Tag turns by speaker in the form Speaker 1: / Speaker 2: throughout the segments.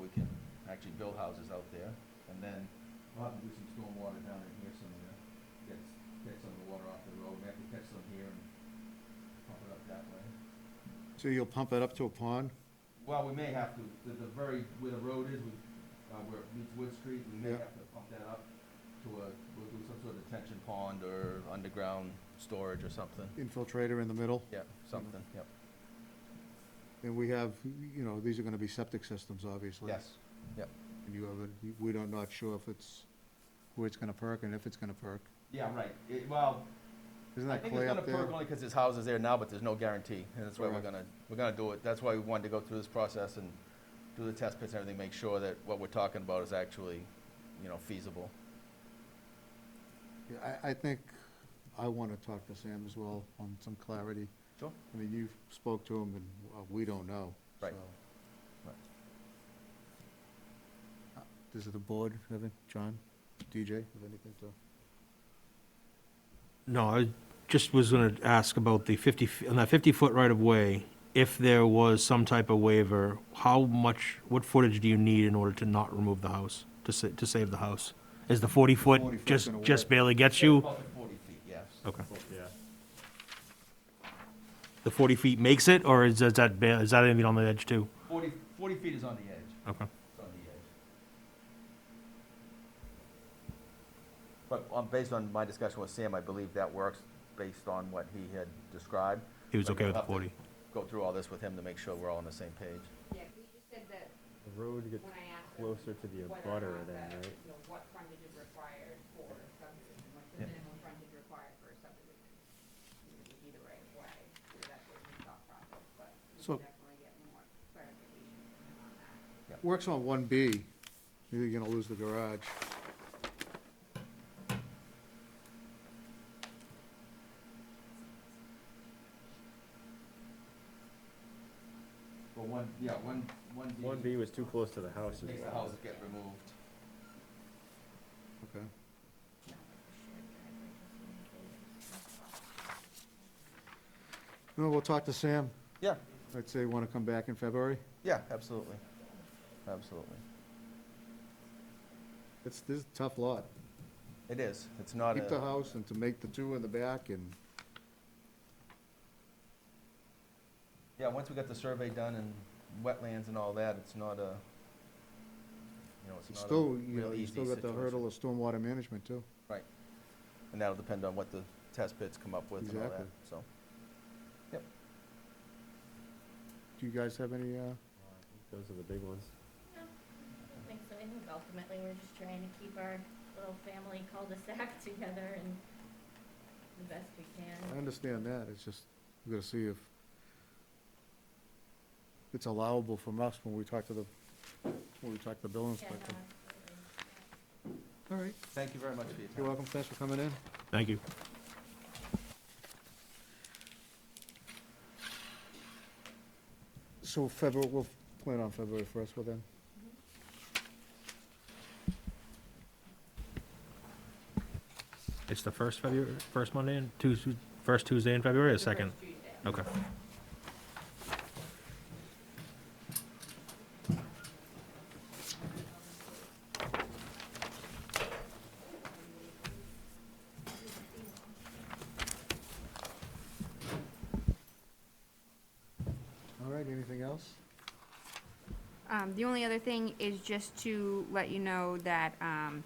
Speaker 1: we can actually build houses out there, and then we'll have to do some stormwater down in here somewhere. Get, get some of the water off the road, we have to catch some here and pump it up that way.
Speaker 2: So you'll pump it up to a pond?
Speaker 1: Well, we may have to, the, the very, where the road is, we, uh, where it meets Wood Street, we may
Speaker 2: Yeah.
Speaker 1: have to pump that up to a, we'll do some sort of detention pond or underground storage or something.
Speaker 2: Infiltrator in the middle?
Speaker 1: Yep, something, yep,
Speaker 2: And we have, you know, these are gonna be septic systems, obviously.
Speaker 1: yes, yep.
Speaker 2: And you have a, we don't, not sure if it's, where it's gonna perk and if it's gonna perk.
Speaker 1: Yeah, right, it, well,
Speaker 2: Isn't
Speaker 1: I
Speaker 2: that
Speaker 1: think it's
Speaker 2: clay
Speaker 1: gonna
Speaker 2: up there?
Speaker 1: perk only because there's houses there now, but there's no guarantee, and that's why we're
Speaker 2: Correct.
Speaker 1: gonna, we're gonna do it, that's why we wanted to go through this process and do the test pits and everything, make sure that what we're talking about is actually, you know, feasible.
Speaker 2: Yeah, I, I think I wanna talk to Sam as well on some clarity.
Speaker 1: Sure.
Speaker 2: I mean, you spoke to him and uh, we don't know.
Speaker 1: Right.
Speaker 2: so.
Speaker 1: Right.
Speaker 2: Uh, Does the board have any, John, DJ, have anything to?
Speaker 3: No, I just was going to ask about the 50, f- on that 50-foot right-of-way, if there was some type of waiver, how much, what footage do you need in order to not remove the house, to sa, to save the house? Is the
Speaker 2: 40 foot's
Speaker 3: 40-foot just,
Speaker 2: gonna
Speaker 3: just
Speaker 2: work.
Speaker 3: barely gets you?
Speaker 1: About the Forty feet, yes.
Speaker 3: Okay.
Speaker 4: Yeah.
Speaker 3: The 40 feet makes it, or is is that, ba- is that even on the edge too?
Speaker 1: Forty, forty feet is on the edge.
Speaker 3: Okay.
Speaker 1: It's on the edge. But um, based on my discussion with Sam, I believe that works based on what he had described.
Speaker 3: He was
Speaker 1: But
Speaker 3: okay
Speaker 1: we'll
Speaker 3: with the
Speaker 1: have to
Speaker 3: 40?
Speaker 1: Go through all this with him to make sure we're all on the same page.
Speaker 5: Yeah, 'cause you just said that
Speaker 4: The road gets
Speaker 5: when I asked. her
Speaker 4: closer to the
Speaker 5: whether
Speaker 4: abutter
Speaker 5: or not
Speaker 4: then,
Speaker 5: the,
Speaker 4: right?
Speaker 5: You know, what frontage is required for a subdivision, what's
Speaker 1: Yeah.
Speaker 5: the minimum frontage required for a subdivision? You know, Either right of way, so that's what we thought process, but we
Speaker 2: So-
Speaker 5: can definitely get more clarification from him on that.
Speaker 2: Works on one B, you're gonna lose the garage.
Speaker 1: But one, yeah, one, one D.
Speaker 4: One B was too close to the house. is
Speaker 1: Makes the
Speaker 4: all.
Speaker 1: houses get removed.
Speaker 2: Okay. No, we'll talk to Sam.
Speaker 1: Yeah,
Speaker 2: I'd say wanna come back in February.
Speaker 1: yeah, absolutely, absolutely.
Speaker 2: It's, this is a tough lot.
Speaker 1: It is, it's not
Speaker 2: Keep the
Speaker 1: a,
Speaker 2: house and to make the two in the back and,
Speaker 1: yeah, once we got the survey done and wetlands and all that, it's not a, you know, it's not a
Speaker 2: still, you know,
Speaker 1: real
Speaker 2: you
Speaker 1: easy
Speaker 2: still got the
Speaker 1: situation.
Speaker 2: hurdle of stormwater management too.
Speaker 1: And that'll depend on what the test pits come up with and all that,
Speaker 2: Exactly.
Speaker 1: so.
Speaker 2: Do you guys have any, uh,
Speaker 4: Those are the big ones.
Speaker 6: No, I don't think so. I think ultimately we're just trying to keep our little family cul-de-sac together and the best we
Speaker 2: I
Speaker 6: can.
Speaker 2: understand that, it's just, we're gonna see if it's allowable from us when we talk to the, when we talk to the building
Speaker 6: Yeah, no,
Speaker 2: inspector.
Speaker 6: absolutely.
Speaker 2: All right,
Speaker 1: Thank you very much for your time.
Speaker 2: you're welcome, thanks for coming in.
Speaker 3: Thank you.
Speaker 2: So February, we'll plan on February first with them.
Speaker 3: It's the first February, first Monday and Tuesday, first Tuesday in February or
Speaker 5: The
Speaker 3: second?
Speaker 5: first Tuesday.
Speaker 3: Okay.
Speaker 2: All right, anything else?
Speaker 7: Um, the only other thing is just to let you know that, um,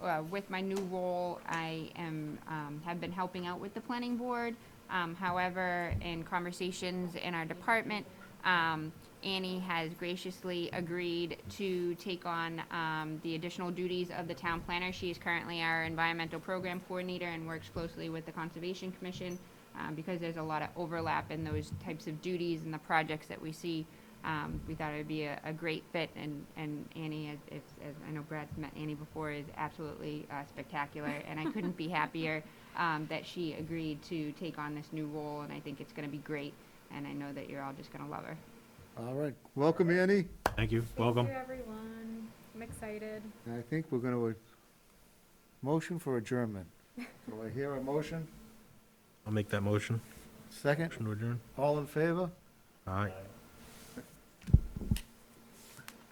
Speaker 7: uh, with my new role, I am, um, have been helping out with the planning board. Um, however, in conversations in our department, um, Annie has graciously agreed to take on, um, the additional duties of the town planner. She is currently our environmental program coordinator and works closely with the Conservation Commission, um, because there's a lot of overlap in those types of duties and the projects that we see. Um, we thought it would be a, a great fit, and, and Annie, as, as, as I know Brad's met Annie before, is absolutely uh, spectacular, and I couldn't be happier um, that she agreed to take on this new role, and I think it's going to be great, and I know that you're all just going to love her.
Speaker 2: All right, welcome Annie,
Speaker 3: Thank you. Welcome.
Speaker 8: Thank you, everyone. I'm excited.
Speaker 2: and I think we're gonna, uh, motion for adjournment. Do I hear a motion?
Speaker 3: I'll make that motion.
Speaker 2: Second,
Speaker 3: Motion to adjourn.
Speaker 2: all in favor?
Speaker 3: All right.